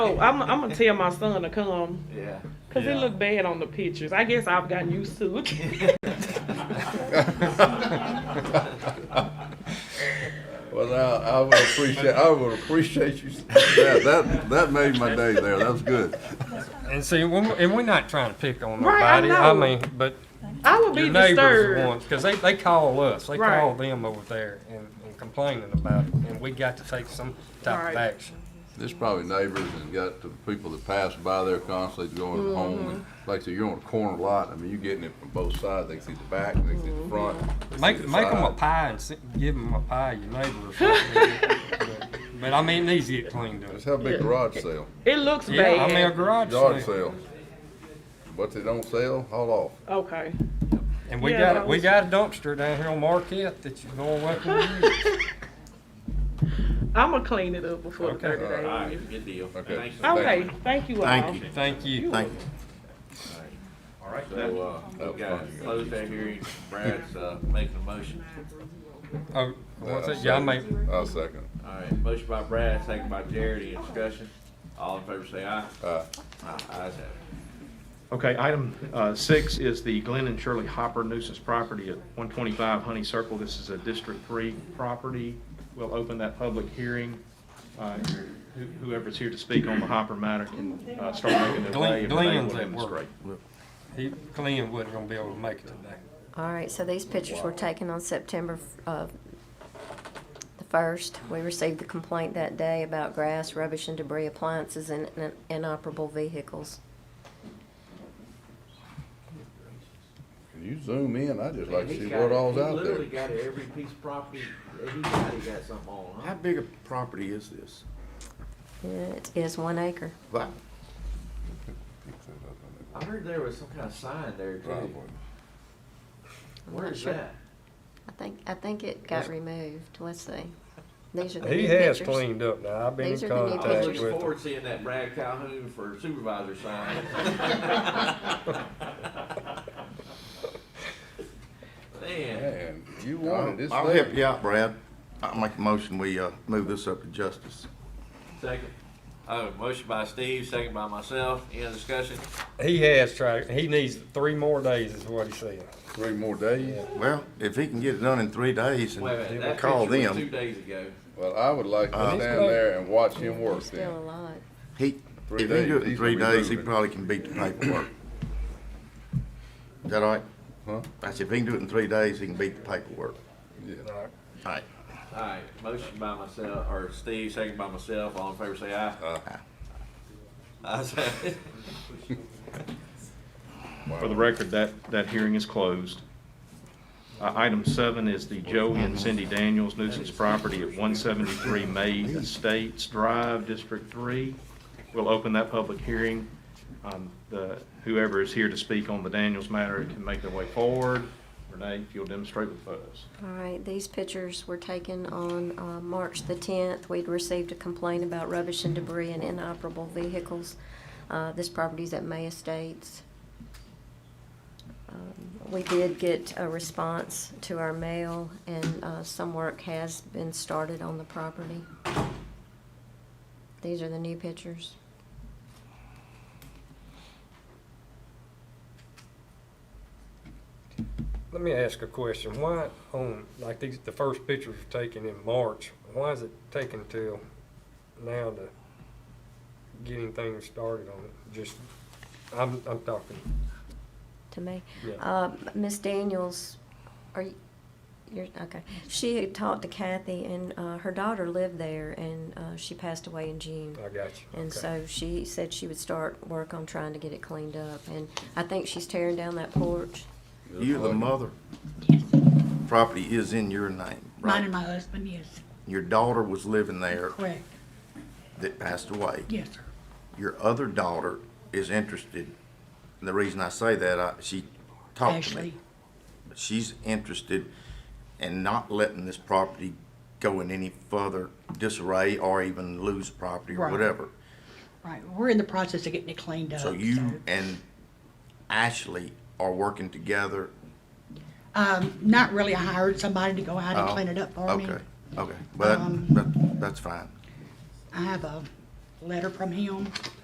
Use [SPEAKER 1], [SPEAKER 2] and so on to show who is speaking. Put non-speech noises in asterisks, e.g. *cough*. [SPEAKER 1] Oh, I'm, I'm gonna tell my son to come
[SPEAKER 2] Yeah.
[SPEAKER 1] because it looked bad on the pictures. I guess I've gotten used to looking.
[SPEAKER 3] *laughs*
[SPEAKER 4] Well, I, I would appreciate, I would appreciate you, that, that, that made my day there, that was good.
[SPEAKER 3] And see, when we and we're not trying to pick on
[SPEAKER 1] Right, I
[SPEAKER 3] nobody.
[SPEAKER 1] know.
[SPEAKER 3] mean, but
[SPEAKER 1] I would be
[SPEAKER 3] your neighbors are
[SPEAKER 1] disturbed.
[SPEAKER 3] ones because they, they call us, they
[SPEAKER 1] Right.
[SPEAKER 3] call them over there and, and complaining about it, and we got to take some type
[SPEAKER 1] Right.
[SPEAKER 3] of action.
[SPEAKER 4] There's probably neighbors and got the people that pass by there constantly going home, and like, so you're on a corner lot, I mean, you're getting it from both sides, they see the back, they see the front. they see
[SPEAKER 3] Make
[SPEAKER 4] the
[SPEAKER 3] make them a
[SPEAKER 4] side.
[SPEAKER 3] pie and se- give them a pie. Your neighbor. Or something.
[SPEAKER 1] *laughs*
[SPEAKER 3] but, but I mean, it needs to get cleaned up.
[SPEAKER 4] Let's have a big garage sale,
[SPEAKER 1] It looks
[SPEAKER 3] Yeah, I mean a
[SPEAKER 1] bad.
[SPEAKER 3] garage
[SPEAKER 4] yard
[SPEAKER 3] sale.
[SPEAKER 4] sale. What they don't sell, haul off.
[SPEAKER 1] Okay. *laughs*
[SPEAKER 3] And we
[SPEAKER 1] Yeah,
[SPEAKER 3] got we got a dumpster down here on Marquette that you go away from.
[SPEAKER 1] *laughs* I'm gonna clean it up before
[SPEAKER 3] Okay.
[SPEAKER 1] the 30
[SPEAKER 2] All
[SPEAKER 1] days.
[SPEAKER 2] right, good deal.
[SPEAKER 4] Okay.
[SPEAKER 2] Thank you.
[SPEAKER 1] Okay. Thank you all.
[SPEAKER 4] Thank you.
[SPEAKER 3] Thank you.
[SPEAKER 4] Thank you.
[SPEAKER 2] All right,
[SPEAKER 4] So,
[SPEAKER 2] so,
[SPEAKER 4] uh,
[SPEAKER 2] uh,
[SPEAKER 4] that
[SPEAKER 2] we got
[SPEAKER 4] was
[SPEAKER 2] to
[SPEAKER 4] fun.
[SPEAKER 2] close that hearing. Brad's, uh, making a motion.
[SPEAKER 3] Oh, what's
[SPEAKER 4] Uh,
[SPEAKER 3] that? Yeah, I make
[SPEAKER 4] I'll second.
[SPEAKER 2] All right, motion by Brad, second by Jared, any discussion? All in favor say aye.
[SPEAKER 4] Uh,
[SPEAKER 2] Aye, ayes have it.
[SPEAKER 5] Okay, item uh, six is the Glenn and Shirley Hopper nuisance property at 125 Honey Circle. This is a District 3 property. We'll open that public hearing. Uh, who- Whoever's here to speak on the Hopper matter can uh, start making their
[SPEAKER 3] Glenn-
[SPEAKER 5] way. and they will
[SPEAKER 3] Glenn's at work.
[SPEAKER 5] demonstrate.
[SPEAKER 3] he Glenn wasn't gonna be able to make it today.
[SPEAKER 6] All right, so these pictures were taken on September uh, the 1st. We received the complaint that day about grass, rubbish, and debris appliances and and inoperable vehicles.
[SPEAKER 4] Can you zoom in? I'd just like to
[SPEAKER 2] He's
[SPEAKER 4] see
[SPEAKER 2] got-
[SPEAKER 4] what all's
[SPEAKER 2] he
[SPEAKER 4] out there.
[SPEAKER 2] Literally got every piece of property, he got, he got something on, huh?
[SPEAKER 7] How big a property is this?
[SPEAKER 6] It is one acre.
[SPEAKER 7] Like,
[SPEAKER 2] I heard there was some kind of sign there too.
[SPEAKER 4] Driveway.
[SPEAKER 2] Where is
[SPEAKER 6] Sure.
[SPEAKER 2] that?
[SPEAKER 6] I think, I think it got removed. Let's see. These are the
[SPEAKER 3] He
[SPEAKER 6] new
[SPEAKER 3] has
[SPEAKER 6] pictures.
[SPEAKER 3] cleaned up now. I've been
[SPEAKER 6] These
[SPEAKER 3] in
[SPEAKER 6] are the new
[SPEAKER 2] I was
[SPEAKER 3] contact with
[SPEAKER 2] looking
[SPEAKER 3] him.
[SPEAKER 2] forward to seeing that Brad Calhoun for supervisor
[SPEAKER 4] *laughs*
[SPEAKER 2] sign. *laughs* Man,
[SPEAKER 4] Man, you wanted this
[SPEAKER 7] I'll
[SPEAKER 4] thing.
[SPEAKER 7] help you out, Brad. I'll make a motion, we, uh, move this up to justice.
[SPEAKER 2] second. Oh, motion by Steve, second by myself, any other discussion?
[SPEAKER 3] He has tried. He needs three more days, is what he said.
[SPEAKER 4] Three more days?
[SPEAKER 7] Well, if he can get it done in three days
[SPEAKER 2] Wait a minute,
[SPEAKER 7] and
[SPEAKER 2] that
[SPEAKER 7] call
[SPEAKER 2] picture was two
[SPEAKER 7] them,
[SPEAKER 2] days ago.
[SPEAKER 4] Well, I would like to
[SPEAKER 7] Uh,
[SPEAKER 4] stand there and watch him work
[SPEAKER 6] There's still a
[SPEAKER 4] then.
[SPEAKER 6] lot.
[SPEAKER 7] he, if
[SPEAKER 4] Three
[SPEAKER 7] he can do
[SPEAKER 4] days,
[SPEAKER 7] it in
[SPEAKER 4] he's
[SPEAKER 7] three
[SPEAKER 4] gonna be
[SPEAKER 7] days, he
[SPEAKER 4] moving.
[SPEAKER 7] probably can beat the paperwork. Is that all right?
[SPEAKER 4] Huh?
[SPEAKER 7] I said, if he can do it in three days, he can beat the paperwork.
[SPEAKER 4] Yeah.
[SPEAKER 7] All right.
[SPEAKER 2] Alright, motion by myself, or Steve, second by myself, all in favor say aye.
[SPEAKER 4] Aye.
[SPEAKER 2] Ayes have it.
[SPEAKER 5] For the record, that, that hearing is closed. Uh, Item seven is the Joe and Cindy Daniels nuisance property at 173 May Estates Drive, District 3. We'll open that public hearing. Um, the- Whoever is here to speak on the Daniels matter can make their way forward. Renee, if you'll demonstrate with photos.
[SPEAKER 6] All right, these pictures were taken on uh, March the 10th. We'd received a complaint about rubbish and debris and inoperable vehicles. Uh, This property's at May Estates. Um, We did get a response to our mail, and uh, some work has been started on the property. These are the new pictures.
[SPEAKER 3] Let me ask a question. Why on, like these, the first pictures were taken in March, why is it taking till now to getting things started on it? Just, I'm, I'm talking,
[SPEAKER 6] to me.
[SPEAKER 3] Yeah.
[SPEAKER 6] Uh, Ms. Daniels, are you, you're, okay. She had talked to Kathy and, uh, her daughter lived there and, uh, she passed away in June.
[SPEAKER 3] I got you. Okay.
[SPEAKER 6] And so she said she would start work on trying to get it cleaned up. And I think she's tearing down that porch.
[SPEAKER 7] You're the mother.
[SPEAKER 8] Yes,
[SPEAKER 7] Property is in your name,
[SPEAKER 8] mine
[SPEAKER 7] right?
[SPEAKER 8] and my husband, yes,
[SPEAKER 7] Your daughter was living there
[SPEAKER 8] correct,
[SPEAKER 7] that passed away.
[SPEAKER 8] yes, sir.
[SPEAKER 7] your other daughter is interested. And the reason I say that, I, she talked to
[SPEAKER 8] Ashley,
[SPEAKER 7] me. She's interested in not letting this property go in any further disarray or even lose property or
[SPEAKER 8] Right.
[SPEAKER 7] whatever.
[SPEAKER 8] right, we're in the process of getting it cleaned up.
[SPEAKER 7] So you and Ashley are working together.
[SPEAKER 8] Um, not really, I hired somebody to go out
[SPEAKER 7] Oh,
[SPEAKER 8] and clean it up for me.
[SPEAKER 7] Okay, okay, but,
[SPEAKER 8] Um,
[SPEAKER 7] but that's fine.
[SPEAKER 8] I have a letter from him.